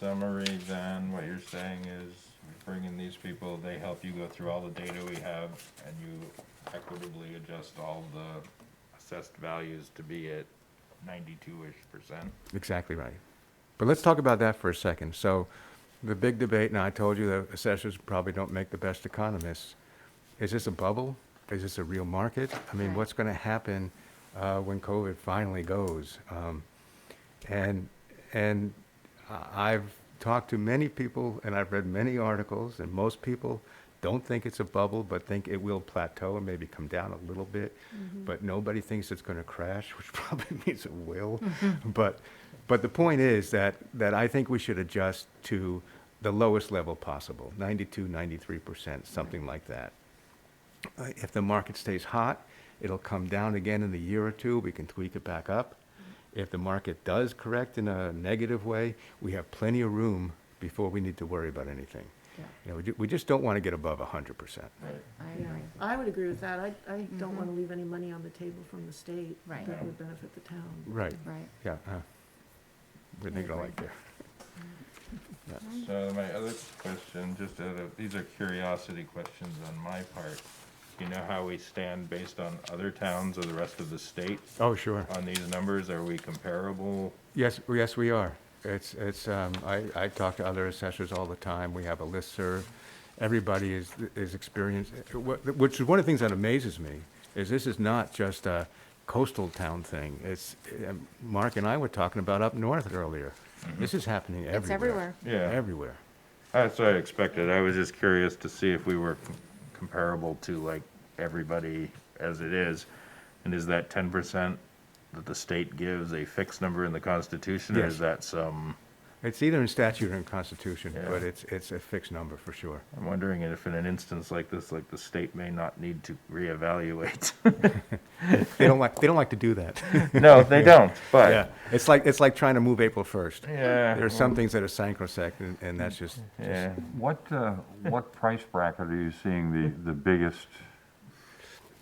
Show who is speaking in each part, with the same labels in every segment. Speaker 1: summary, then what you're saying is bringing these people, they help you go through all the data we have and you equitably adjust all the assessed values to be at ninety-two-ish percent.
Speaker 2: Exactly right. But let's talk about that for a second. So the big debate, and I told you the assessors probably don't make the best economists. Is this a bubble? Is this a real market? I mean,
Speaker 3: Right.
Speaker 2: what's going to happen uh, when COVID finally goes? Um, and and I- I've talked to many people, and I've read many articles, and most people don't think it's a bubble, but think it will plateau and maybe come down a little bit. But nobody thinks it's going to crash, which probably means it will. But but the point is that that I think we should adjust to the lowest level possible, 92, 93 percent, something like that. Uh, If the market stays hot, it'll come down again in a year or two, we can tweak it back up. If the market does correct in a negative way, we have plenty of room before we need to worry about anything.
Speaker 3: Yeah.
Speaker 2: You know, we ju- we just don't want to get above hundred percent.
Speaker 1: Right.
Speaker 3: I
Speaker 4: Yeah,
Speaker 3: agree.
Speaker 4: I would agree with that. I, I don't want to
Speaker 3: Mhm.
Speaker 4: leave any money on the table from the state.
Speaker 3: Right.
Speaker 4: That would benefit the town.
Speaker 2: Right,
Speaker 3: Right.
Speaker 2: yeah. uh, We're thinking
Speaker 3: agree.
Speaker 2: alike there.
Speaker 1: So my other question, just out of, these are curiosity questions on my part. You know how we stand based on other towns or the rest of the state
Speaker 2: Oh, sure.
Speaker 1: on these numbers? Are we comparable?
Speaker 2: Yes, yes, we are. It's, it's, um, I, I talk to other assessors all the time. We have a listserv. Everybody is, is experienced, wh- which is one of the things that amazes me, is this is not just a coastal town thing. It's, um, Mark and I were talking about up north earlier. This is happening everywhere.
Speaker 3: It's everywhere.
Speaker 1: Mm-hmm. Yeah.
Speaker 2: Everywhere.
Speaker 1: That's what I expected. I was just curious to see if we were com- comparable to like everybody as it is. And is that ten percent that the state gives a fixed number in the Constitution? Or
Speaker 2: Yes.
Speaker 1: is that some,
Speaker 2: It's either in statute or in constitution,
Speaker 1: Yeah.
Speaker 2: but it's, it's a fixed number for sure.
Speaker 1: I'm wondering if in an instance like this, like the state may not need to reevaluate.
Speaker 2: They don't like, they don't like to do that.
Speaker 1: No, they don't,
Speaker 2: Yeah.
Speaker 1: but,
Speaker 2: It's like, it's like trying to move April first.
Speaker 1: yeah.
Speaker 2: There are some things that are sacrosanct, and, and that's just,
Speaker 1: Yeah,
Speaker 5: What, uh, what price bracket are you seeing the, the biggest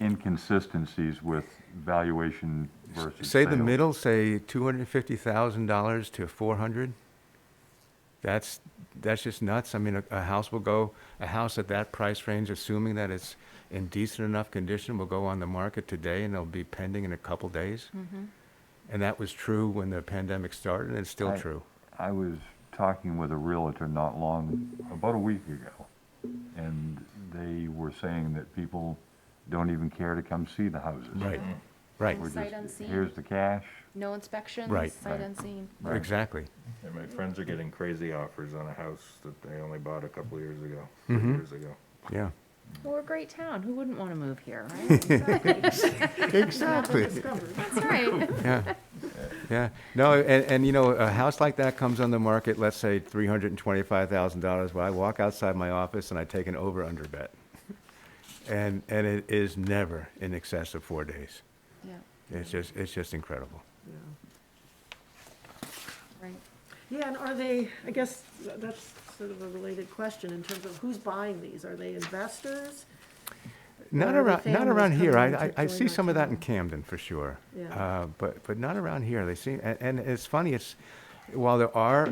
Speaker 5: inconsistencies with valuation versus
Speaker 2: say the
Speaker 5: sale?
Speaker 2: middle, say two hundred and fifty thousand dollars to four hundred. That's, that's just nuts. I mean, a, a house will go, a house at that price range, assuming that it's in decent enough condition, will go on the market today and it'll be pending in a couple days.
Speaker 3: Mm-hmm.
Speaker 2: And that was true when the pandemic started, and it's still
Speaker 5: I-
Speaker 2: true.
Speaker 5: I was talking with a realtor not long, about a week ago, and they were saying that people don't even care to come see the houses.
Speaker 2: Right, right,
Speaker 5: We're
Speaker 3: Sight
Speaker 5: just,
Speaker 3: unseen.
Speaker 5: here's the cash.
Speaker 3: No inspections.
Speaker 2: Right.
Speaker 3: Sight unseen.
Speaker 5: Right.
Speaker 2: exactly.
Speaker 1: and my friends are getting crazy offers on a house that they only bought a couple years ago, three
Speaker 2: Mhm.
Speaker 1: years ago.
Speaker 2: Yeah.
Speaker 3: Well, we're a great town. Who wouldn't want to move here, right?
Speaker 2: Exactly.
Speaker 4: Discovered.
Speaker 3: That's right.
Speaker 2: Yeah, yeah. No, and, and you know, a house like that comes on the market, let's say three hundred and twenty-five thousand dollars, well, I walk outside my office and I take an over-under bet. And, and it is never in excess of four days.
Speaker 3: Yeah,
Speaker 2: It's just, it's just incredible.
Speaker 4: Yeah.
Speaker 3: right.
Speaker 4: Yeah, and are they, I guess, th- that's sort of a related question in terms of who's buying these? Are they investors?
Speaker 2: Not
Speaker 4: Where are the
Speaker 2: around, not
Speaker 4: families
Speaker 2: around here.
Speaker 4: coming
Speaker 2: I, I,
Speaker 4: to
Speaker 2: I
Speaker 4: join
Speaker 2: see
Speaker 4: our
Speaker 2: some of that in
Speaker 4: town?
Speaker 2: Camden for sure.
Speaker 4: Yeah.
Speaker 2: Uh, but, but not around here. They seem, and, and it's funny, it's, while there are,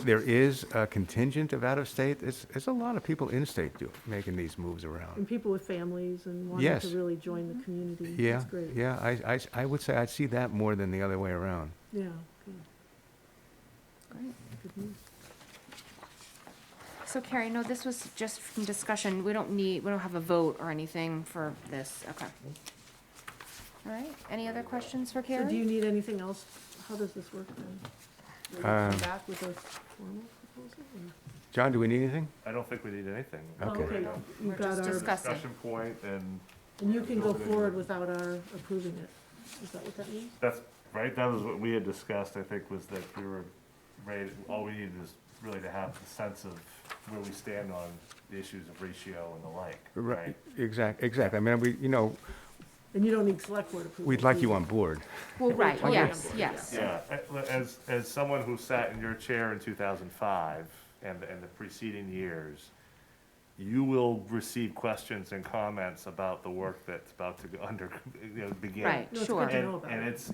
Speaker 2: there is a contingent of out-of-state, it's, it's a lot of people in-state do, making these moves around.
Speaker 4: And people with families and wanting
Speaker 2: Yes.
Speaker 4: to really join
Speaker 3: Mm-hmm.
Speaker 4: the community?
Speaker 2: Yeah,
Speaker 4: That's great.
Speaker 2: yeah, I, I, s- I would say I see that more than the other way around.
Speaker 4: Yeah, good,
Speaker 3: Great.
Speaker 4: good news.
Speaker 3: So Carrie, no, this was just from discussion. We don't need, we don't have a vote or anything for this. Okay. All right. Any other questions for
Speaker 4: So do
Speaker 3: Carrie?
Speaker 4: you need anything else? How does this work then? Will you
Speaker 2: Um,
Speaker 4: Come back with a formal proposal? or-
Speaker 2: John, do we need anything?
Speaker 6: I don't think we need anything.
Speaker 2: Okay.
Speaker 4: Okay,
Speaker 3: We're
Speaker 4: you've got
Speaker 3: just
Speaker 4: our,
Speaker 3: discussing.
Speaker 6: Discussion point, and
Speaker 4: and you can go forward without our approving it. Is that what that means?
Speaker 6: that's, right, that was what we had discussed, I think, was that we were ready, all we needed is really to have the sense of where we stand on the issues of ratio and the like, right?
Speaker 2: Exact, exactly. I mean, we, you know,
Speaker 4: And you don't need select board approval.
Speaker 2: we'd like
Speaker 4: do
Speaker 2: you on board.
Speaker 3: Well, right,
Speaker 4: Okay.
Speaker 3: yes, yes.
Speaker 6: Yeah, a- as, as someone who sat in your chair in two thousand five and, and the preceding years, you will receive questions and comments about the work that's about to go under, you know, begin.
Speaker 3: Right,
Speaker 4: No, it's
Speaker 3: sure.
Speaker 4: good to
Speaker 6: And,
Speaker 4: know about
Speaker 6: and
Speaker 4: it.
Speaker 6: it's,